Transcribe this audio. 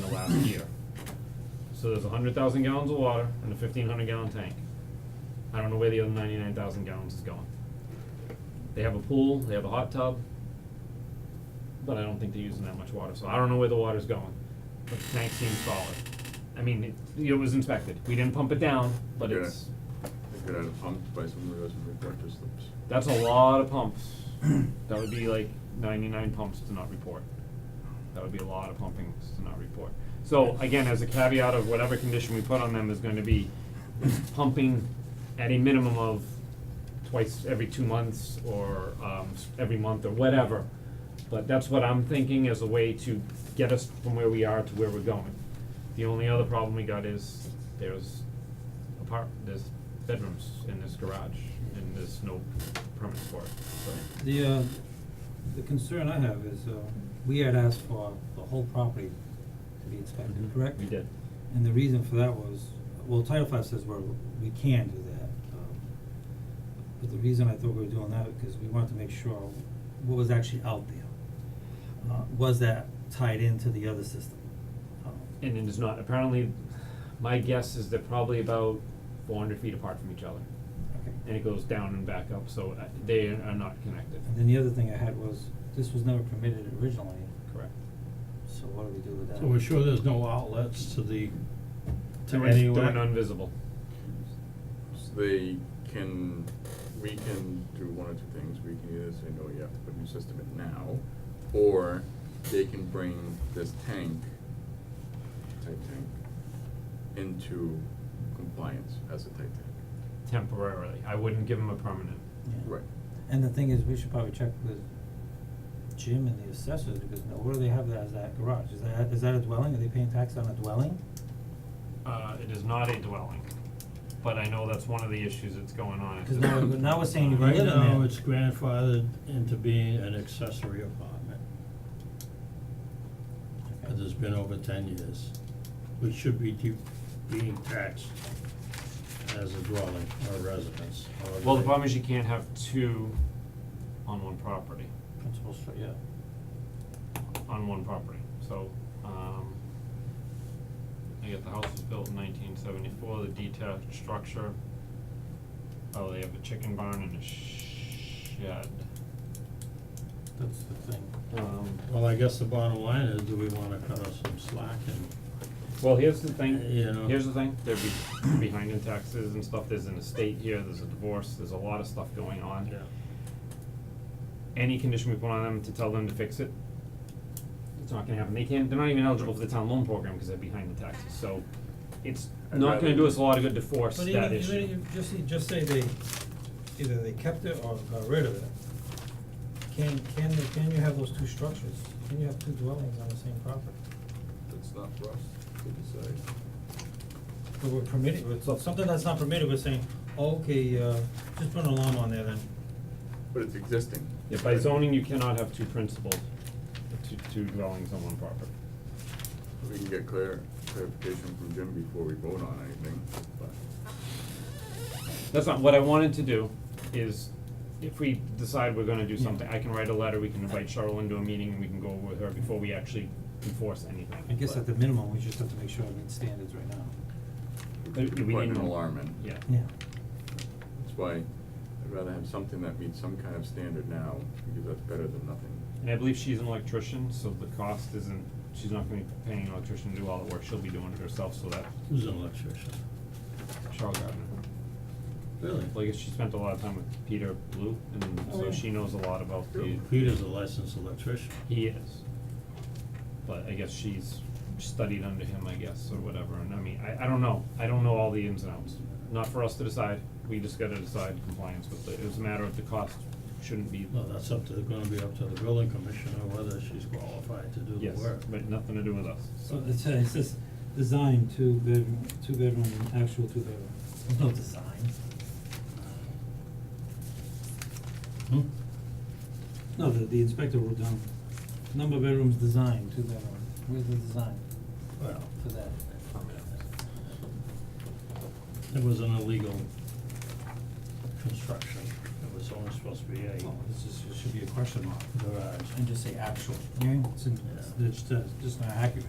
the last year. So there's hundred thousand gallons of water in a fifteen hundred gallon tank. I don't know where the other ninety-nine thousand gallons is going. They have a pool, they have a hot tub, but I don't think they're using that much water, so I don't know where the water's going. But the tank seems solid. I mean, it, it was inspected. We didn't pump it down, but Yeah. it's, They could add a pump by some of those reflector slips. that's a lot of pumps. That would be like ninety-nine pumps to not report. That would be a lot of pumpings to not report. So again, as a caveat of whatever condition we put on them is gonna be pumping at a minimum of twice every two months or um s- every month or whatever. But that's what I'm thinking as a way to get us from where we are to where we're going. The only other problem we got is there's apart, there's bedrooms in this garage and there's no permits for it, so. The, uh, the concern I have is, uh, we had asked for the whole property to be inspected, correct? Mm-hmm. We did. And the reason for that was, well, Title Five says we're, we can do that, um, but the reason I thought we were doing that, because we wanted to make sure what was actually out there. Uh, was that tied into the other system? Um, And it is not, apparently, my guess is they're probably about four hundred feet apart from each other. Okay. And it goes down and back up, so uh, they are not connected. And then the other thing I had was, this was never permitted originally, Correct. so what do we do with that? So we're sure there's no outlets to the, They're to in- any They're elec- non-visible. So They can, we can do one or two things, we can either say, no, you have to put a new system in now, or they can bring this tank, type tank, into compliance as a type tank. temporarily. I wouldn't give them a permanent. Yeah. Right. And the thing is, we should probably check with Jim and the assessors, because now where do they have that as that garage? Is that, is that a dwelling? Are they paying tax on a dwelling? Uh, it is not a dwelling, but I know that's one of the issues that's going on. is 'Cause that- now, now we're saying you can right live in there. now, it's grandfathered into being an accessory apartment. That has been over ten years, which should be de- being taxed as a dwelling or a residence, however Well, the they- problem is you can't have two on one property, Principal stru- yeah. on one property, so, um, I get the house was built in nineteen seventy-four, the detached structure. Oh, they have a chicken barn and a shed. That's the thing. Um, Well, I guess the bottom line is, do we wanna cut us some slack and, Well, here's the thing, You know. here's the thing, they're be- behind in taxes and stuff, there's an estate here, there's a divorce, there's a lot of stuff going on. yeah, Any condition we put on them to tell them to fix it, it's not gonna happen, they can't, they're not even eligible for the town loan program because they're behind the taxes, so it's I'd not rather- gonna do us a lot of good to force that issue. But even, even if, just, you just say they, either they kept it or got rid of it. Can, can, they- can you have those two structures? Can you have two dwellings on the same property? That's not for us to decide. But we're permitted, it's something that's not permitted, we're saying, okay, uh, just put an alarm on there then. But it's existing. Yeah, by zoning, you cannot have two principals, two, two dwellings on one property. We can get clar- clarification from Jim before we vote on anything, but. That's not, what I wanted to do is, if we decide we're gonna do Yeah. something, I can write a letter, we can invite Cheryl into a meeting, and we can go with her before we actually enforce anything. I guess but- at the minimum, we just have to make sure it meets standards right now. But could we put an didn't- alarm in. Yeah. That's why I'd rather have something that meets some kind of standard now, because that's better than nothing. And I believe she's an electrician, so the cost isn't, she's not gonna be paying an electrician to do all the work, she'll be doing it herself, so that, who's an electrician? Cheryl Gardner. Really? Like, she spent a lot of time with Peter Blue, and Oh, so yeah. she knows a lot about the, Peter's a licensed electrician. he is. But I guess she's studied under him, I guess, or whatever, and I mean, I, I don't know, I don't know all the ins and outs. Not for us to decide, we just gotta decide compliance with it, it was a matter of the cost shouldn't be, Well, that's up to, gonna be up to the building commissioner whether she's qualified to do yes, the work. but nothing to do with us, So it says, it says design, two bedroom, two bedroom, actual two bedroom. There's no design. Hmm? No, the, the inspector wrote down, number of bedrooms design, two bedroom. Where's the design Well, for that? it was an illegal construction. It was only supposed to be a Well, this is, it should be a question mark. uh, garage. And just say actual, yeah, it's, in- it's, it's just, just not accurate.